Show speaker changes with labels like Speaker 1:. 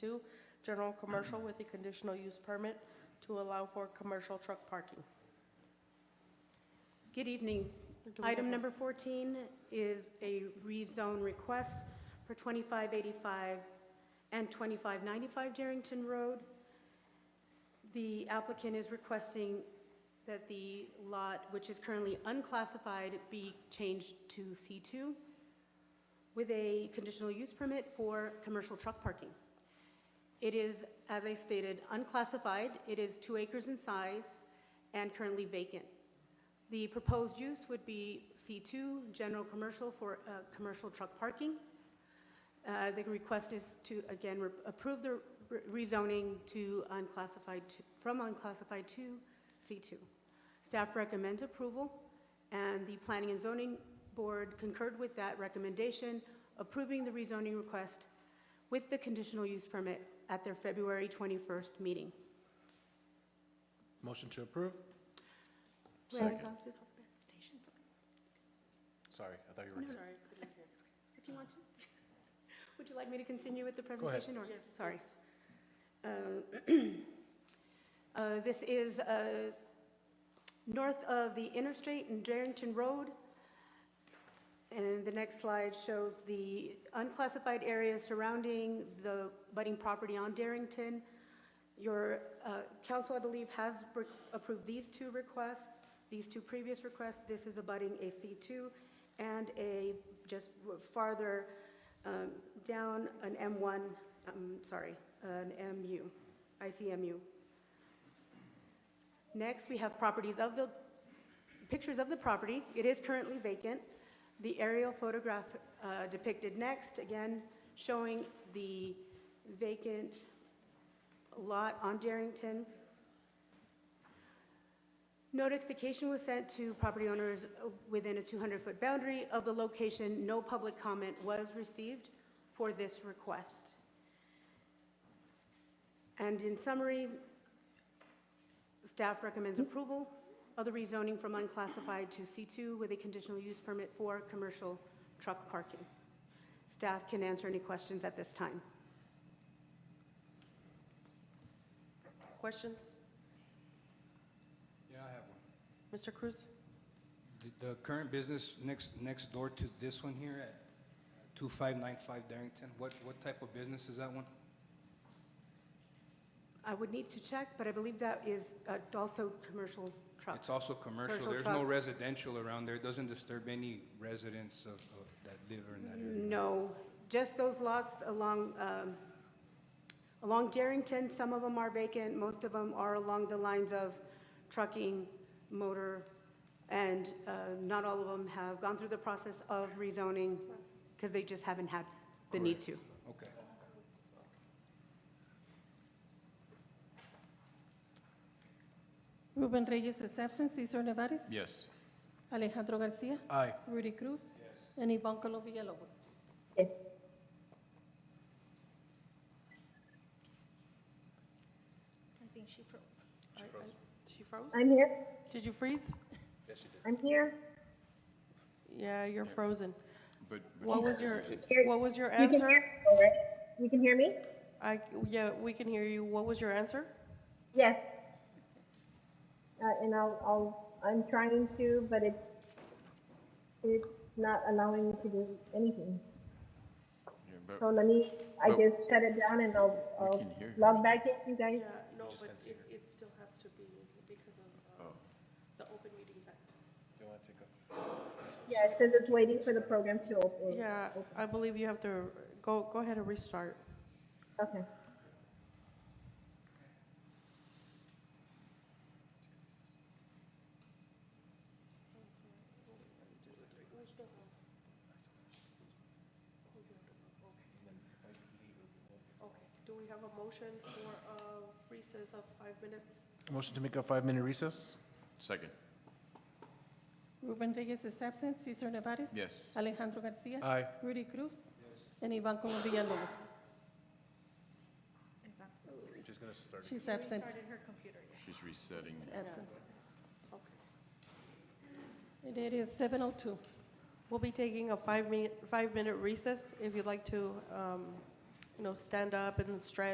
Speaker 1: two, general commercial with a conditional use permit to allow for commercial truck parking.
Speaker 2: Good evening. Item number 14 is a rezone request for 2585 and 2595 Darrington Road. The applicant is requesting that the lot, which is currently unclassified, be changed to C2 with a conditional use permit for commercial truck parking. It is, as I stated, unclassified. It is two acres in size and currently vacant. The proposed use would be C2, general commercial for uh, commercial truck parking. Uh, The request is to, again, re- approve the re- rezoning to unclassified, to- from unclassified to C2. Staff recommends approval, and the Planning and Zoning Board concurred with that recommendation, approving the rezoning request with the conditional use permit at their February 21st meeting.
Speaker 3: Motion to approve?
Speaker 2: uh,
Speaker 3: Sorry, I thought you were.
Speaker 2: Sorry, couldn't hear. If you want to. Would you like me to continue with the
Speaker 3: ahead.
Speaker 2: presentation? or- Sorry. Um, uh, This is uh, north of the interstate in Darrington Road. And the next slide shows the unclassified areas surrounding the budding property on Darrington. Your uh, council, I believe, has re- approved these two requests, these two previous requests. This is abutting a C2 and a, just farther um, down, an M1, I'm sorry, an MU, ICMU. Next, we have properties of the, pictures of the property. It is currently vacant. The aerial photograph uh, depicted next, again, showing the vacant lot on Darrington. Notification was sent to property owners within a 200-foot boundary of the location. No public comment was received for this request. And in summary, staff recommends approval of the rezoning from unclassified to C2 with a conditional use permit for commercial truck parking. Staff can answer any questions at this time.
Speaker 1: Questions?
Speaker 4: Yeah, I have one.
Speaker 1: Mr. Cruz?
Speaker 4: The- The current business next, next door to this one here at 2595 Darrington, what, what type of business is that one?
Speaker 2: I would need to check, but I believe that is uh, also commercial truck.
Speaker 4: It's also
Speaker 2: Oh,
Speaker 4: commercial.
Speaker 2: Commercial
Speaker 4: There's no
Speaker 2: truck.
Speaker 4: residential around there. It doesn't disturb any residents of, of- that live in that area.
Speaker 2: No, just those lots along, um, along Darrington, some of them are vacant, most of them are along the lines of trucking, motor, and uh, not all of them have gone through the process of rezoning because they just haven't had the need to.
Speaker 4: Okay.
Speaker 5: Ruben Reyes is absent. Cesar Nevares.
Speaker 3: Yes.
Speaker 5: Alejandro Garcia.
Speaker 3: Aye.
Speaker 5: Rudy Cruz. And Ivan Colo Villalobos.
Speaker 6: I think she froze.
Speaker 1: I- I- She froze?
Speaker 7: I'm here.
Speaker 1: Did you freeze?
Speaker 7: I'm here.
Speaker 1: Yeah, you're frozen.
Speaker 8: But, but
Speaker 1: What was your,
Speaker 7: Here-
Speaker 1: what was your
Speaker 7: You can hear,
Speaker 1: answer?
Speaker 7: all right? You can hear me?
Speaker 1: I, yeah, we can hear you. What was your answer?
Speaker 7: Yes. Uh, and I'll, I'll, I'm trying to, but it's, it's not allowing me to do anything.
Speaker 8: yeah, but
Speaker 7: So let me, I
Speaker 8: But-
Speaker 7: just shut it down and I'll,
Speaker 8: We
Speaker 7: I'll
Speaker 8: Oh. can hear
Speaker 7: log back in, you guys.
Speaker 1: no, but it, it still has to be because of um, the Open Meetings Act.
Speaker 7: Yeah, it says it's waiting for the program to open.
Speaker 1: Yeah, I believe you have to, go, go ahead and restart.
Speaker 7: Okay.
Speaker 1: Okay, do we have a motion for a recess of five minutes?
Speaker 3: Motion to make a five-minute recess?
Speaker 8: second,
Speaker 5: Ruben Reyes is absent. Cesar Nevares.
Speaker 8: yes.
Speaker 5: Alejandro Garcia.
Speaker 3: Aye.
Speaker 5: Rudy Cruz. And Ivan Colo Villalobos.
Speaker 6: Is that-
Speaker 3: She's gonna start.
Speaker 5: She's absent.
Speaker 6: Restarted her computer. yeah.
Speaker 8: She's resetting.
Speaker 5: Absent.
Speaker 1: Okay.
Speaker 5: And it is 7:02.
Speaker 1: We'll be taking a five-minute, five-minute recess. If you'd like to, um, you know, stand up and stretch